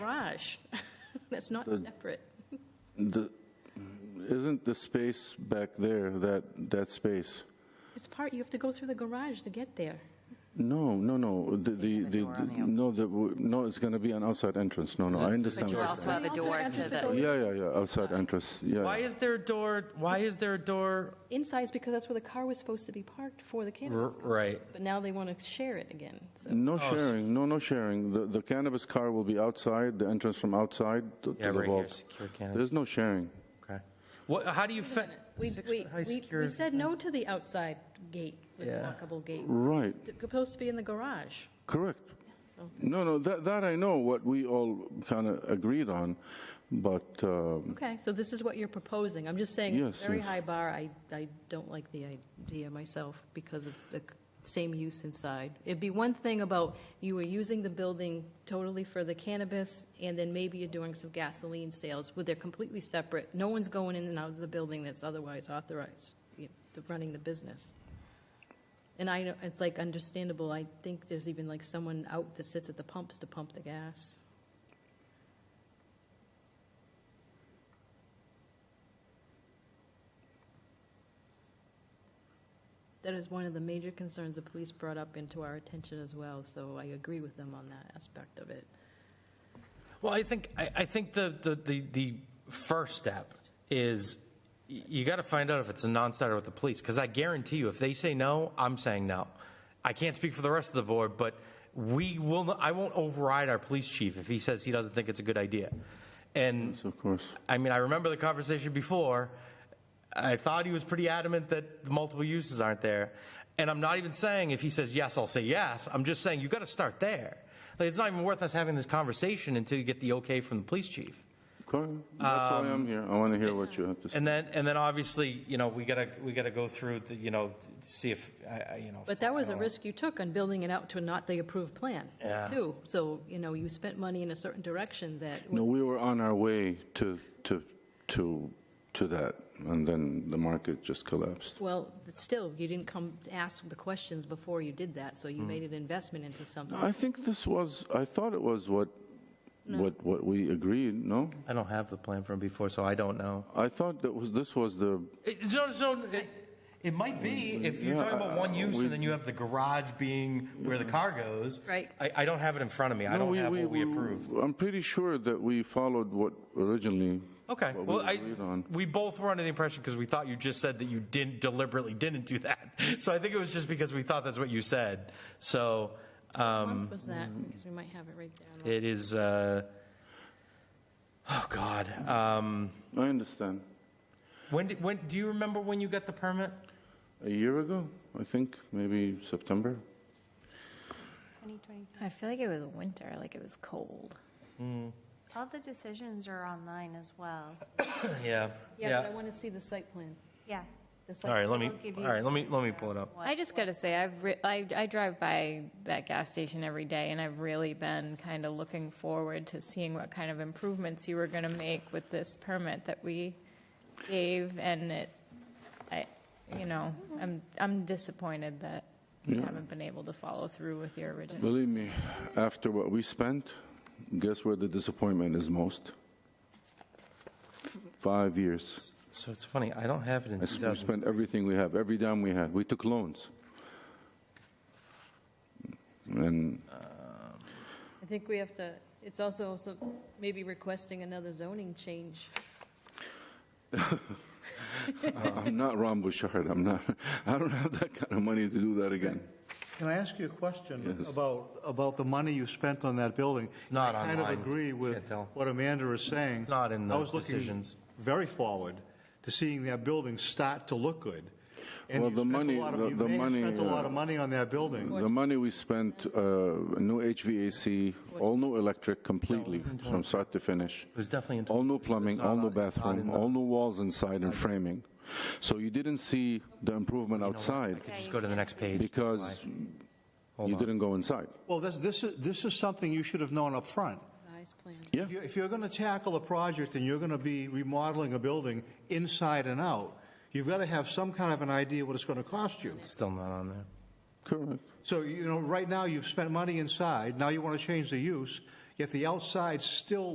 garage. That's not separate. The- Isn't the space back there, that, that space? It's part, you have to go through the garage to get there. No, no, no, the, the, have a the- door on the no, the, no, it's going to be an outside entrance, no, no, I understand. But you what also you're have a Also door have to to saying. Uh, the, have- Yeah, yeah, yeah, outside entrance, yeah. Why yeah. is there a door, why is there a door? Inside is because that's where the car was supposed to be parked for the cannabis. Right. Mm. But now they want to share it again, so. No Oh, s- sharing, no, no sharing. The, the cannabis car will be outside, the entrance from outside to Yeah, to the right here, vault. secure cannabis. There's no sharing. Okay. What, how do you fe- We, six we, foot high we- we secure- said no to the outside gate, this Yeah. Mm. walkable gate. Right, It's supposed to be in the garage. correct. No, no, that, that I know, what we all kind of agreed on, but, um, Okay, so this is what you're proposing. I'm just saying, it's a Yes, very yes. high bar. I, I don't like the idea myself because of the c- same use inside. It'd be one thing about you were using the building totally for the cannabis, and then maybe you're doing some gasoline sales, where they're completely separate. No one's going in and out of the building that's otherwise authorized, you know, to running the business. And I, know it's like understandable. I think there's even like someone out that sits at the pumps to pump the gas. That is one of the major concerns the police brought up into our attention as well, so I agree with them on that aspect of it. Well, I think, I, I think the, the, the, the first step is y- you got to find out if it's a non-starter with the police, because I guarantee you, if they say no, I'm saying no. I can't speak for the rest of the board, but we will, not- I won't override our police chief if he says he doesn't think it's a good idea. And yes, of course. I mean, I remember the conversation before. I thought he was pretty adamant that the multiple uses aren't there. And I'm not even saying if he says yes, I'll say yes. I'm just saying you got to start there. Like, it's not even worth us having this conversation until you get the okay from the police chief. Okay, That's why I'm here. I want to hear what you have to say. And then, and then obviously, you know, we gotta, we gotta go through the, you know, see if, I I- you know. But that was a risk you took on building it out to not the approved plan, Yeah. too. So, you know, you spent money in a certain direction that, No, we were on our way to, to, to, to that, and then the market just collapsed. well, but still, you didn't come to ask the questions before you did that, so Mm. you made an investment into Um, something. I think this was, I thought it was what, what, what we agreed, no? I don't have the plan from before, so I don't know. I thought that was, this was the, It, so, so it, it might be if you're Yeah, talking about one uh, use we- and then you have the garage being where the car goes. Right. I, I don't have it in front of me. I No, don't have what we approved. I'm pretty sure that we followed what originally. Okay. what we Well, I, agreed on. we both were under the impression because we thought you just said that you didn't deliberately didn't do that. So I think it was just because we thought that's what you said. So um, What month was that? Because we might have it right down. mm. it is. Uh, oh God. Um, I understand. when did, when do you remember when you got the permit? A year ago, I think, maybe September. I feel like it was winter, like it was cold. All the decisions are online as well. so- yeah. Yeah, but I want to see the site plan. Yeah. The site All right. Let me. I'll give All you- right. Let me. Let me pull it up. I just gotta say, I've re- I, I drive by that gas station every day, and I've really been kind of looking forward to seeing what kind of improvements you were gonna make with this permit that we gave, and it, I, you know, I'm I'm disappointed that you haven't been able to follow through with your original. Believe me, after what we spent, guess where the disappointment is most? Five years. So it's funny, I don't have it in I s- We 2000. spent everything we have, every dime we had. We took loans. And I think we have to, it's also some- maybe requesting another zoning change. I'm not Ron Bouchard, I'm not, I don't have that kind of money to do that again. Can I ask you a question Yes. about, about the money you spent on that building? It's not I kind online. of agree Can't with tell. what Amanda is saying. It's not in I the was looking decisions. very forward to seeing that building start to look good. And Well, you the spent a money- lot of- the- you the may have money, spent a lot uh, of money on that building. The money we spent, uh, new HVAC, all new electric completely, from start to finish. It was definitely in All new plumbing, It's not all on- new it's not in bathroom, the- all new walls inside and framing. So you didn't see the improvement outside Just go to the next page. because you didn't go inside. Well, this, this is, this is something you should have known up front. Nice plan. Yeah. If you- If you're going to tackle a project and you're going to be remodeling a building inside and out, you've got to have some kind of an idea what it's going to cost you. Still not on there. Correct. So, you know, right now, you've spent money inside, now you want to change the use, yet the outside's still